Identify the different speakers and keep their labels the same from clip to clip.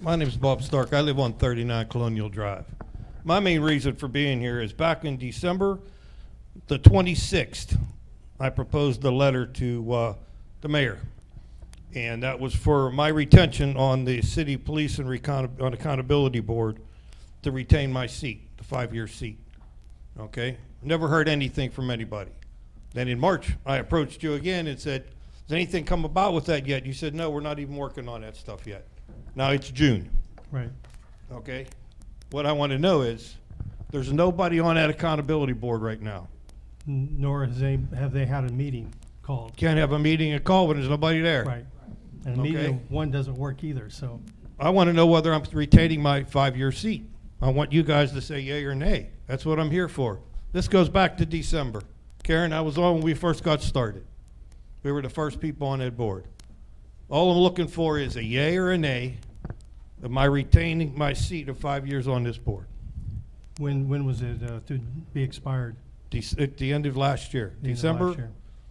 Speaker 1: My name's Bob Stark. I live on 39 Colonial Drive. My main reason for being here is back in December the 26th, I proposed a letter to uh, the mayor. And that was for my retention on the City Police and Recon- on Accountability Board to retain my seat, the five-year seat. Okay? Never heard anything from anybody. Then in March, I approached you again and said, has anything come about with that yet? You said, no, we're not even working on that stuff yet. Now it's June,
Speaker 2: Right.
Speaker 1: okay? What I want to know is, there's nobody on that accountability board right now.
Speaker 2: N- Nor has they, have they had a meeting called.
Speaker 1: Can't have a meeting and call when there's nobody there.
Speaker 2: Right. And a
Speaker 1: Okay.
Speaker 2: meeting, one doesn't work either, so.
Speaker 1: I want to know whether I'm retaining my five-year seat. I want you guys to say yay or nay. That's what I'm here for. This goes back to December. Karen, I was on when we first got started. We were the first people on that board. All I'm looking for is a yay or a nay of my retaining my seat of five years on this board.
Speaker 2: When, when was it uh, to be expired?
Speaker 1: Dec- At the end of last year,
Speaker 2: The end of last
Speaker 1: December.
Speaker 2: year.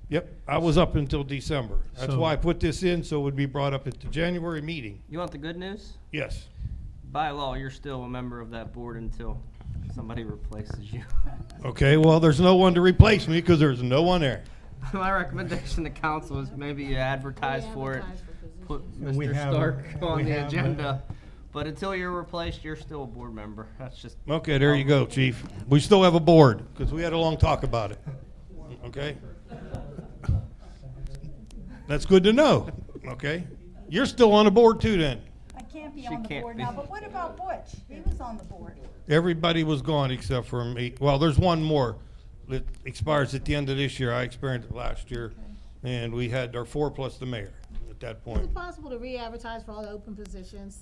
Speaker 1: Yep, I was up until December. That's
Speaker 2: So-
Speaker 1: why I put this in, so it would be brought up at the January meeting.
Speaker 3: You want the good news?
Speaker 1: Yes.
Speaker 3: By law, you're still a member of that board until somebody replaces you.
Speaker 1: Okay, well, there's no one to replace me because there's no one there.
Speaker 3: My recommendation to council is maybe you advertise for it, put
Speaker 2: And we
Speaker 3: Mr.
Speaker 2: have-
Speaker 3: Stark
Speaker 2: we
Speaker 3: on the
Speaker 2: have, uh,
Speaker 3: agenda. But until you're replaced, you're still a board member. That's just,
Speaker 1: Okay, there you go, chief. We still have a board because we had a long talk about it. Okay? That's good to know. Okay? You're still on the board too then.
Speaker 4: I can't be
Speaker 3: She
Speaker 4: on the
Speaker 3: can't
Speaker 4: board
Speaker 3: be.
Speaker 4: now, but what about Butch? He was on the board.
Speaker 1: Everybody was gone except for me. Well, there's one more that expires at the end of this year. I experienced it last year. And we had our four plus the mayor at that
Speaker 5: Is
Speaker 1: point.
Speaker 5: it possible to re-advertise for all the open positions?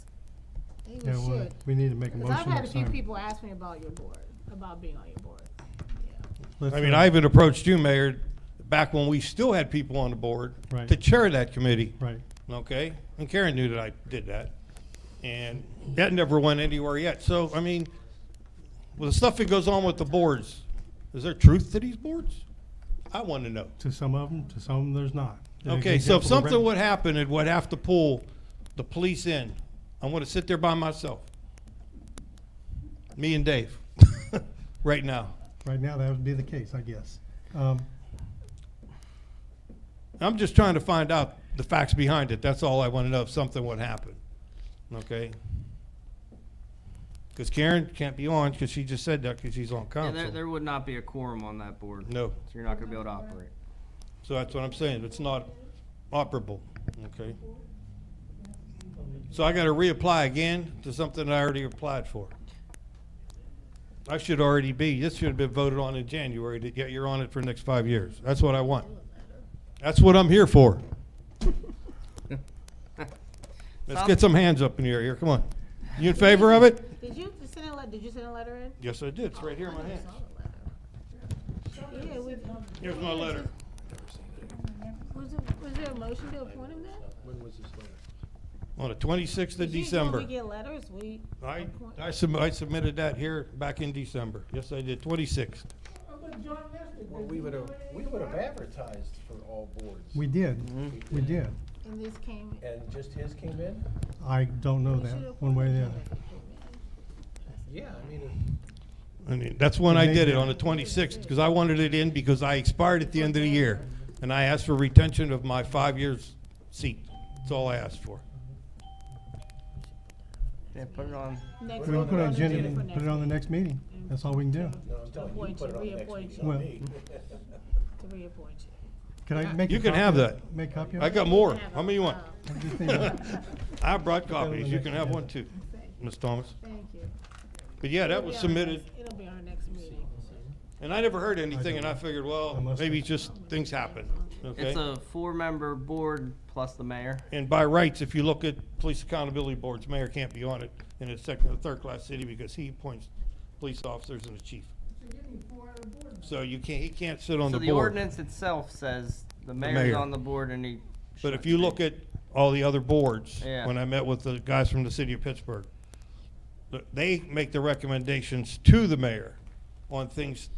Speaker 5: They
Speaker 2: Yeah, well,
Speaker 5: should.
Speaker 2: We need to make a
Speaker 5: Because
Speaker 2: motion.
Speaker 5: I've had a
Speaker 2: next
Speaker 5: few
Speaker 2: time.
Speaker 5: people ask me about your board, about being on your board.
Speaker 2: Let's,
Speaker 1: I mean,
Speaker 2: uh,
Speaker 1: I even approached you, Mayor, back when we still had people on the board
Speaker 2: Right.
Speaker 1: to chair that committee.
Speaker 2: Right.
Speaker 1: okay? And Karen knew that I did that. And that never went anywhere yet. So, I mean, with the stuff that goes on with the boards, is there truth to these boards? I want to know.
Speaker 2: To some of them, to some of them, there's not. An
Speaker 1: Okay, so if
Speaker 2: example,
Speaker 1: something
Speaker 2: Brent-
Speaker 1: would happen, it would have to pull the police in. I'm going to sit there by myself. Me and Dave, right now.
Speaker 2: Right now, that would be the case, I guess. Um,
Speaker 1: I'm just trying to find out the facts behind it. That's all I want to know if something would happen. Okay? Because Karen can't be on because she just said that because she's on
Speaker 3: yeah, there, there
Speaker 1: council.
Speaker 3: would not be a quorum on that board.
Speaker 1: No.
Speaker 3: So you're not gonna be able to operate.
Speaker 1: So that's what I'm saying. It's not operable. Okay? So I got to reapply again to something I already applied for. I should already be, this should have been voted on in January, that yeah, you're on it for the next five years. That's what I want. That's what I'm here for. Let's
Speaker 3: Sounds-
Speaker 1: get some hands up in the air here. Come on. You in favor of it?
Speaker 5: Did you send a, le- did you send a letter in?
Speaker 1: Yes, I did. It's right here in my hands.
Speaker 5: Yeah, we,
Speaker 1: Here's my letter.
Speaker 5: was, it- was there a motion to appoint him then?
Speaker 1: On the 26th of
Speaker 5: Did you- you know
Speaker 1: December.
Speaker 5: we get letters, we.
Speaker 1: I,
Speaker 5: appoint-
Speaker 1: I sub- I submitted that here back in December. Yes, I did. 26th.
Speaker 6: Well, we would have, we would have advertised for all boards.
Speaker 2: We did, we did.
Speaker 5: And this came.
Speaker 6: And Mm-hmm. just his came in?
Speaker 2: I don't know
Speaker 5: we should
Speaker 2: that,
Speaker 5: have
Speaker 2: one way or the
Speaker 5: appointed
Speaker 2: other.
Speaker 5: him.
Speaker 6: Yeah, I mean, if-
Speaker 1: I mean, that's when I
Speaker 2: Maybe.
Speaker 1: did it, on the 26th, because I wanted it in because I expired at the end of the year. And I asked for retention of my five years seat. That's all I asked for.
Speaker 3: Yeah, put it on.
Speaker 5: Next
Speaker 2: We can
Speaker 5: one,
Speaker 2: put it on the agenda,
Speaker 5: for
Speaker 2: and put it on the next meeting. That's all we can do.
Speaker 6: no, I'm telling you, you put it on the next
Speaker 5: Appoint
Speaker 6: meeting,
Speaker 5: you,
Speaker 6: not
Speaker 2: Well-
Speaker 6: me.
Speaker 5: To reappoint you.
Speaker 2: Can
Speaker 5: Uh,
Speaker 2: I make a
Speaker 1: You can
Speaker 2: copy
Speaker 1: have
Speaker 2: of it?
Speaker 1: that.
Speaker 2: Make a copy of
Speaker 1: I
Speaker 2: it?
Speaker 1: got more. How many you want?
Speaker 5: Oh,
Speaker 2: Just need a-
Speaker 1: I brought
Speaker 2: on the
Speaker 1: copies. You
Speaker 2: next
Speaker 1: can have one
Speaker 2: agenda.
Speaker 1: too, Ms. Thomas.
Speaker 5: Thank you.
Speaker 1: But yeah, that
Speaker 5: It'll
Speaker 1: was
Speaker 5: be on our
Speaker 1: submitted.
Speaker 5: next- It'll be our next meeting.
Speaker 1: And I never heard anything, and I figured, well,
Speaker 2: I must
Speaker 1: maybe
Speaker 2: have-
Speaker 1: just things happen,
Speaker 3: It's
Speaker 1: okay?
Speaker 3: a four-member board plus the mayor.
Speaker 1: And by rights, if you look at police accountability boards, mayor can't be on it in a second or third-class city because he appoints police officers and the chief. So you can't, he can't sit on
Speaker 3: So
Speaker 1: the
Speaker 3: the
Speaker 1: board.
Speaker 3: ordinance itself says the
Speaker 1: mayor.
Speaker 3: mayor's on the board and he.
Speaker 1: But
Speaker 3: shouldn't
Speaker 1: if you look
Speaker 3: be.
Speaker 1: at all the other boards,
Speaker 3: Yeah.
Speaker 1: when I met with the guys from the city of Pittsburgh, th- they make the recommendations to the mayor on things